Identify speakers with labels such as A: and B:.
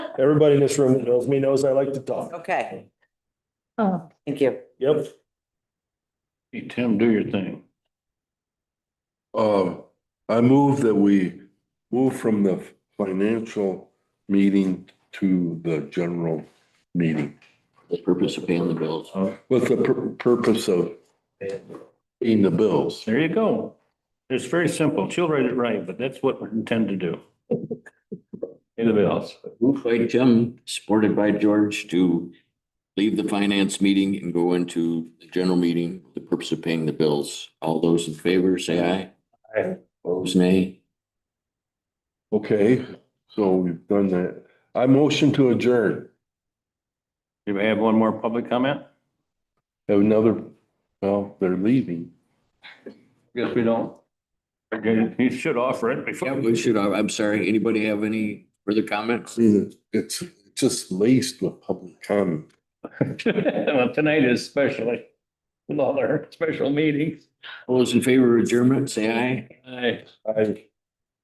A: Everybody in this room that knows me knows I like to talk.
B: Okay,
C: Oh,
B: thank you.
A: Yep.
D: Hey, Tim, do your thing.
E: Um, I move that we move from the financial meeting to the general meeting
F: The purpose of paying the bills.
E: with the pur- purpose of paying the bills.
D: There you go. It's very simple. She'll write it right, but that's what we intend to do. Anybody else?
F: Moved by Jim, supported by George to leave the finance meeting and go into the general meeting, with the purpose of paying the bills. All those in favor, say aye.
D: Aye.
F: Opposed, nay.
E: Okay, so we've done that. I motion to adjourn.
D: Do we have one more public comment?
E: Have another, well, they're leaving.
D: Guess we don't. Okay, You should offer it
F: Yeah,
D: before.
F: we should, I- I'm sorry, anybody have any further comments?
E: See, It's just laced with public comment.
D: Well, Tonight is especially, with all our special meetings.
F: All those in favor of adjournment, say aye.
D: Aye.
E: I,